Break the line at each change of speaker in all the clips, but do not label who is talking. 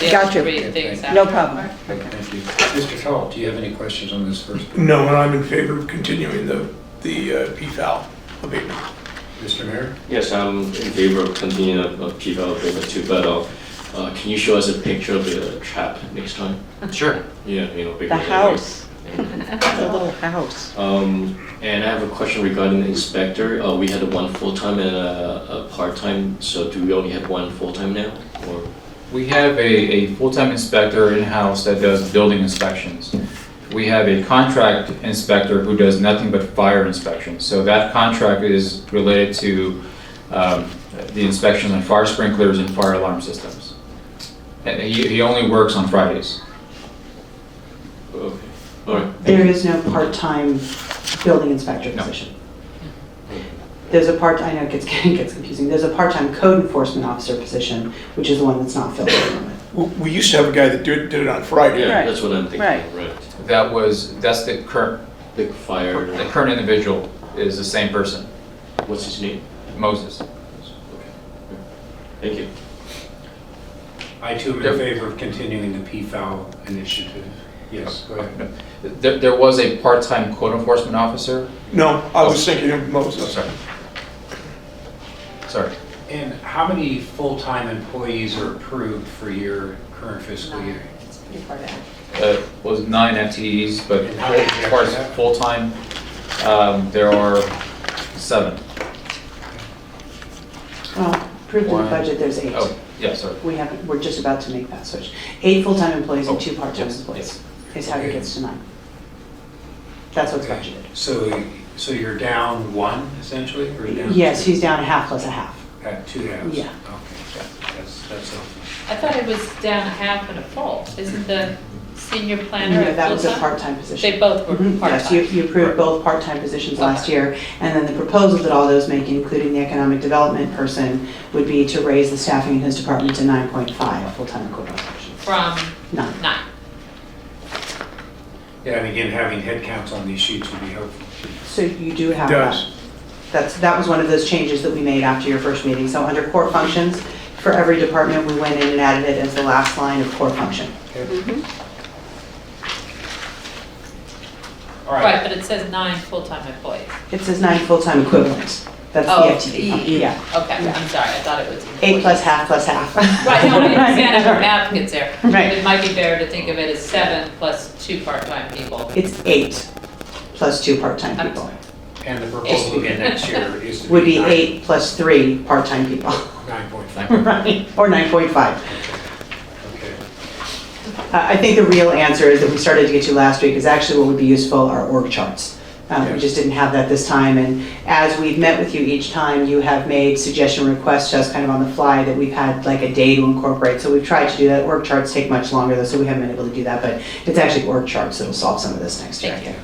The other
Got you.
three things
No
after.
problem.
Great, Thank you. Mr. Feld, do you have any questions on this first?
No, and I'm in favor of continuing the, the uh, PFAL abatement.
Mr. Mayor?
Yes, I'm in favor of continuing of of PFAL agreement too, but uh, uh, can you show us a picture of the trap next time?
Sure.
Yeah, you know, bigger.
The
than
house,
that.
the little house.
Um, and I have a question regarding the inspector. Uh, we had one full-time and a, a part-time, so do we only have one full-time now? Or,
We have a, a full-time inspector in-house that does building inspections. We have a contract inspector who does nothing but fire inspections. So that contract is related to um, the inspections on fire sprinklers and fire alarm systems. And he, he only works on Fridays.
okay, all right.
There is no part-time building inspector
No.
position. There's a part, I know it gets, it gets confusing, there's a part-time code enforcement officer position, which is the one that's not filled at the moment.
We- We used to have a guy that did, did it on Friday.
Yeah,
Right,
that's what I'm thinking,
right.
right.
That was, that's the current,
The fire,
the current individual is the same person,
what's his name?
Moses.
Okay. yeah. Thank you.
I too am in
Yep.
favor of continuing the PFAL initiative. Yes, go ahead.
There, there was a part-time code enforcement officer, oh,
No, I was thinking of Moses.
sorry. Sorry.
And how many full-time employees are approved for your current fiscal year?
It's pretty far down.
uh, was nine FTEs, but
And how many
as far
do you have?
as full-time, um, there are seven.
Well, approved in the
One.
budget, there's eight.
Oh, yeah, sorry.
We haven't, we're just about to make that switch. Eight full-time employees and
Oh,
two part-time
yes,
employees is how it gets to nine. That's what's budgeted.
So, so you're down one essentially, or down?
Yes,
two?
he's down a half plus a half.
Uh, Two halves?
Yeah.
Okay, that's, that's helpful.
I thought it was down a half and a full. Isn't the senior planner
No,
a
that was a
full-time?
part-time position.
They both were
Mhm, Yes, you,
part-time.
you approved both part-time positions last year, and then the proposal that all those make, including the economic development person, would be to raise the staffing in his department to nine point five full-time equivalent positions.
From
Nine.
nine.
Yeah, and again, having headcounts on these sheets would be helpful.
So you do have that.
Does.
That's, that was one of those changes that we made after your first meeting. So under core functions, for every department, we went in and added it as the last line of core function.
All
Right,
right,
but it says nine full-time employees.
It says nine full-time equivalents. That's
Oh,
the FTE.
E.
Yeah.
Okay, I'm sorry, I thought it was.
Eight
employees.
plus half plus half.
Right, no, I understand how the math gets there.
Right.
It might be fair to think of it as seven plus two part-time people.
It's eight plus two part-time
I'm
people.
and the proposal again next year is to be.
would be
nine-
eight plus three part-time people,
Nine point five,
right? Or 9.5.
okay.
Uh, I I think the real answer is that we started to get to last week is actually what would be useful are org charts. Um, We
Yes.
just didn't have that this time, and as we've met with you each time, you have made suggestion requests to us kind of on the fly that we've had like a day to incorporate, so we've tried to do that. Org charts take much longer though, so we haven't been able to do that, but it's actually org charts that'll solve some of this next year. I
Thank you.
think.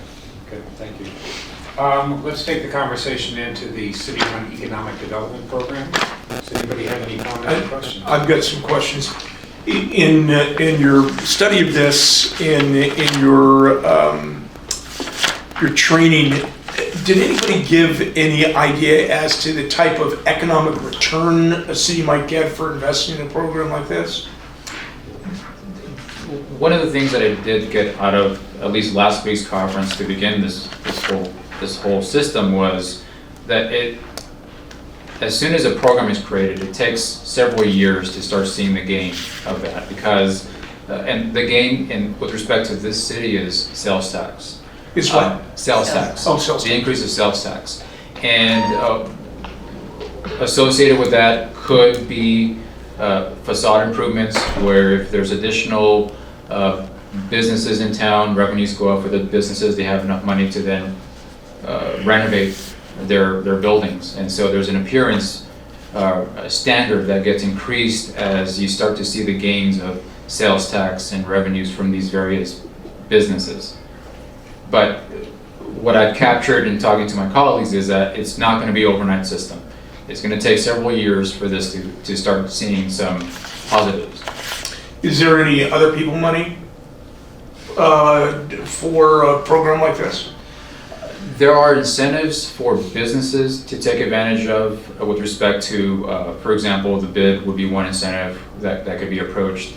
Good, thank you. Um, Let's take the conversation into the city-run economic development program. Does anybody have any comments or questions?
I've got some questions. I- In, uh, in your study of this, in, in your, um, your training, did anybody give any idea as to the type of economic return a city might get for investing in a program like this?
One of the things that I did get out of at least last week's conference to begin this, this whole, this whole system was that it, as soon as a program is created, it takes several years to start seeing the gain of that because, uh, and the gain in, with respect to this city is sales tax.
Is
Uh,
what?
Sales tax.
Oh, sales
The increase of sales tax. And uh, associated with that could be uh, facade improvements where if there's additional uh, businesses in town, revenues go up for the businesses, they have enough money to then uh, renovate their, their buildings. And so there's an appearance uh, a standard that gets increased as you start to see the gains of sales tax and revenues from these various businesses. But what I've captured in talking to my colleagues is that it's not going to be overnight system. It's going to take several years for this to, to start seeing some positives.
Is there any other people money uh, for a program like this?
There are incentives for businesses to take advantage of uh, with respect to, uh, for example, the bid would be one incentive that, that could be approached.